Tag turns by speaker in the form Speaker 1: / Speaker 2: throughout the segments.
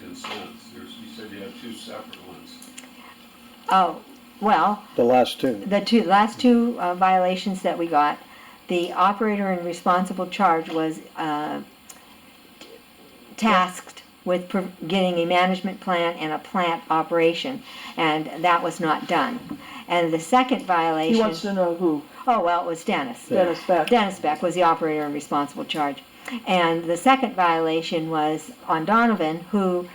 Speaker 1: consents, there's, you said you have two separate ones.
Speaker 2: Oh, well,
Speaker 3: the last two.
Speaker 2: the two, last two uh, violations that we got, the operator in responsible charge was uh, tasked with pro- getting a management plan and a plant operation, and that was not done. And the second
Speaker 4: He wants
Speaker 2: violation,
Speaker 4: to know who,
Speaker 2: oh, well, it was Dennis.
Speaker 4: Dennis Beck.
Speaker 2: Dennis Beck was the operator in responsible charge. And the second violation was on Donovan, who,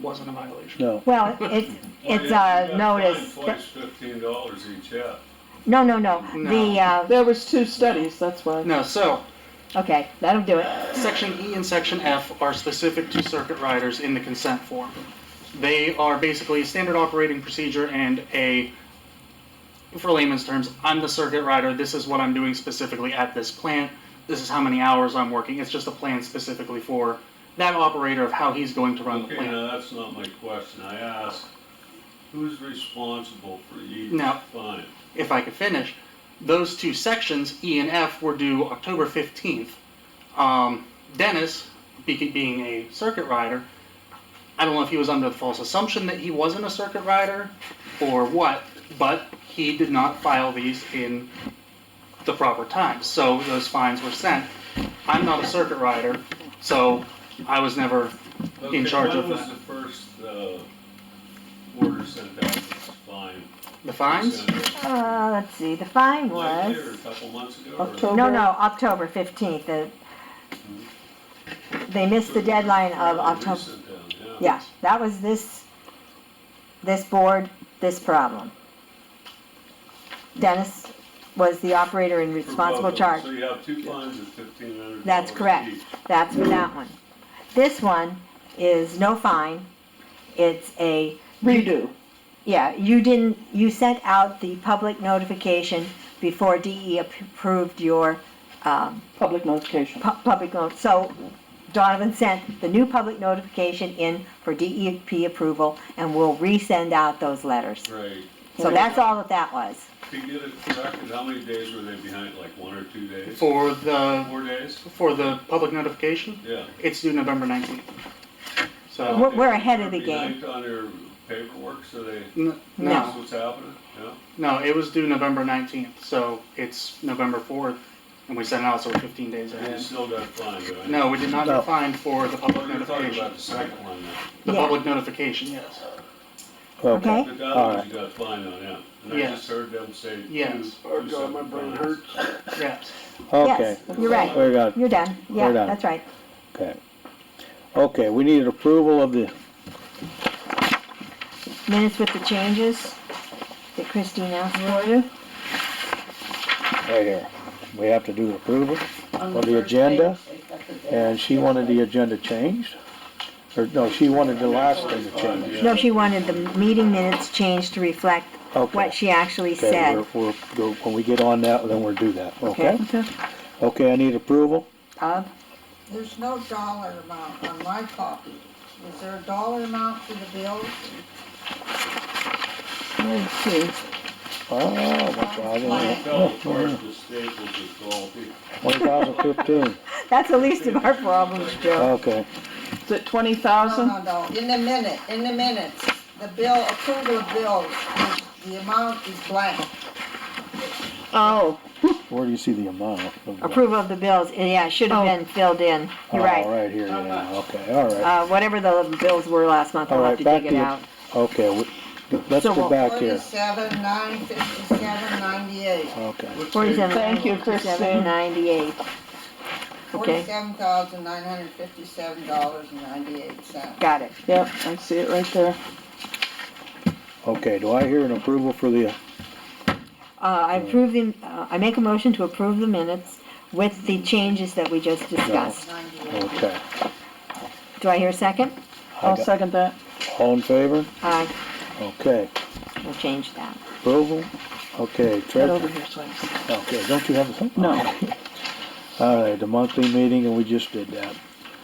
Speaker 5: Wasn't a violation.
Speaker 3: No,
Speaker 2: well, it's, it's uh,
Speaker 1: Well, you-
Speaker 2: a
Speaker 1: you got
Speaker 2: notice.
Speaker 1: fined Twice fifteen dollars each up.
Speaker 2: No, no, no,
Speaker 5: No.
Speaker 2: the, uh,
Speaker 4: There was two studies, that's why.
Speaker 5: No, so,
Speaker 2: okay, that'll do it.
Speaker 5: section E and section F are specific to circuit riders in the consent form. They are basically a standard operating procedure and a, for layman's terms, I'm the circuit rider, this is what I'm doing specifically at this plant, this is how many hours I'm working, it's just a plan specifically for that operator of how he's going to run
Speaker 1: Okay,
Speaker 5: the
Speaker 1: uh,
Speaker 5: plant.
Speaker 1: now, that's not my question, I asked, who's responsible for each
Speaker 5: No.
Speaker 1: fine?
Speaker 5: if I could finish, those two sections, E and F, were due October 15th. Um, Dennis, be- being a circuit rider, I don't know if he was under the false assumption that he wasn't a circuit rider or what, but he did not file these in the proper time. So those fines were sent. I'm not a circuit rider, so I was never.
Speaker 1: Okay,
Speaker 5: charge of
Speaker 1: When was
Speaker 5: that.
Speaker 1: the first, uh, order sent out, this fine?
Speaker 5: The fines?
Speaker 2: Uh, let's see, the fine
Speaker 1: Last year, a
Speaker 2: was,
Speaker 1: couple months ago? or-
Speaker 4: October.
Speaker 2: no, no, October fifteenth, the, they missed the deadline of uh, October,
Speaker 1: Recent down,
Speaker 2: yeah, that was this, this board, this problem. Dennis was the operator in
Speaker 1: For both
Speaker 2: responsible
Speaker 1: of them.
Speaker 2: charge,
Speaker 1: So you have two fines of fifteen hundred dollars.
Speaker 2: That's correct. that's for that one. This one is no fine, it's a
Speaker 4: Redo.
Speaker 2: Yeah, you didn't, you sent out the public notification before DE ap- approved your um,
Speaker 4: Public notification.
Speaker 2: pu- public, no- so Donovan sent the new public notification in for DEP approval, and we'll resend out those letters.
Speaker 1: Right.
Speaker 2: So that's all that that was.
Speaker 1: To get it corrected, how many days were they behind, like one or two days?
Speaker 5: For the,
Speaker 1: Four days?
Speaker 5: for the public notification,
Speaker 1: Yeah.
Speaker 5: it's due November 19th. So.
Speaker 2: We're- we're ahead of the
Speaker 1: They're
Speaker 2: game.
Speaker 1: Behind on their paperwork, so they,
Speaker 5: N-
Speaker 2: No.
Speaker 1: that's
Speaker 5: No,
Speaker 1: what's happening, yeah?
Speaker 5: no, it was due November 19th, so it's November 4th, and we sent it out, so we're 15 days
Speaker 1: And you
Speaker 5: ahead.
Speaker 1: still got fined, right?
Speaker 5: No, we did not
Speaker 3: No.
Speaker 5: get fined for the public
Speaker 1: You're talking
Speaker 5: notification.
Speaker 1: about the second one now.
Speaker 5: The
Speaker 2: Yeah.
Speaker 5: public notification, yes.
Speaker 2: Okay.
Speaker 3: okay.
Speaker 1: The dollars you got fined on, yeah. And I
Speaker 5: Yes.
Speaker 1: just heard them say. two-
Speaker 5: Yes.
Speaker 1: two separate fines.
Speaker 5: Yes.
Speaker 3: Okay,
Speaker 2: Yes, you're right,
Speaker 3: we got,
Speaker 2: you're done. Yeah,
Speaker 3: We're done.
Speaker 2: that's right.
Speaker 3: okay. Okay, we need approval of the,
Speaker 2: Minutes with the changes that Christine asked for you.
Speaker 3: right here, we have to do approval of the agenda, and she wanted the agenda changed. Or, no, she wanted the last thing to change.
Speaker 2: No, she wanted the meeting minutes changed to reflect
Speaker 3: Okay.
Speaker 2: what she actually
Speaker 3: Okay,
Speaker 2: said.
Speaker 3: we're, we're, go- when we get on that, then we'll do that, okay?
Speaker 2: Okay.
Speaker 3: Okay, I need approval,
Speaker 2: Of,
Speaker 6: There's no dollar amount on my copy. Is there a dollar amount for the bills?
Speaker 2: let's see.
Speaker 3: oh, what's
Speaker 1: I
Speaker 3: wrong?
Speaker 1: fell apart the staples of faulty.
Speaker 3: One thousand fifteen,
Speaker 2: That's the least of our problems, Joe.
Speaker 3: okay,
Speaker 4: Is it twenty
Speaker 6: No,
Speaker 4: thousand?
Speaker 6: no, no, in the minute, in the minutes, the bill, approval of bills, the- the amount is blank.
Speaker 3: Uh,
Speaker 4: Oh,
Speaker 3: where do you see the amount?
Speaker 2: Approval of the bills, eh, yeah, it should have
Speaker 4: Oh.
Speaker 2: been filled in, you're
Speaker 3: Oh,
Speaker 2: right.
Speaker 3: right here, yeah, okay, all right.
Speaker 2: Uh, whatever the bills were last month,
Speaker 3: All
Speaker 2: I'll
Speaker 3: right,
Speaker 2: have to
Speaker 3: back
Speaker 2: dig
Speaker 3: to
Speaker 2: it out.
Speaker 3: you. Okay, we- let's
Speaker 2: So
Speaker 3: go
Speaker 2: we'll-
Speaker 3: back here.
Speaker 6: Forty-seven, nine fifty-seven, ninety-eight.
Speaker 3: Okay,
Speaker 2: Forty-seven.
Speaker 4: Thank you, Christine.
Speaker 2: Ninety-eight. Okay,
Speaker 6: Forty-seven thousand, nine hundred fifty-seven dollars and ninety-eight cents.
Speaker 2: got it.
Speaker 4: yep, I see it right there.
Speaker 3: okay, do I hear an approval for the,
Speaker 2: Uh, I approve the, uh, I make a motion to approve the minutes with the changes that we just discussed.
Speaker 6: Ninety-eight.
Speaker 3: okay.
Speaker 2: Do I hear a second?
Speaker 3: I
Speaker 4: I'll
Speaker 3: got-
Speaker 4: second that.
Speaker 3: All in favor?
Speaker 2: Aye,
Speaker 3: Okay,
Speaker 2: we'll change that.
Speaker 3: approval? Okay,
Speaker 4: Get
Speaker 3: treasurer,
Speaker 4: over here, so I can see.
Speaker 3: okay, don't you have something?
Speaker 4: No,
Speaker 3: All right, the monthly meeting, and we just did that.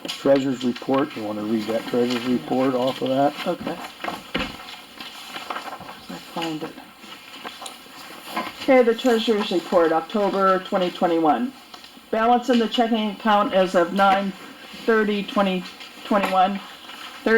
Speaker 3: Treasurer's report, you wanna read that treasurer's report off of that?
Speaker 4: okay. I find it. Okay, the treasurer's report, October twenty twenty-one. Balance in the checking account as of nine thirty twenty twenty-one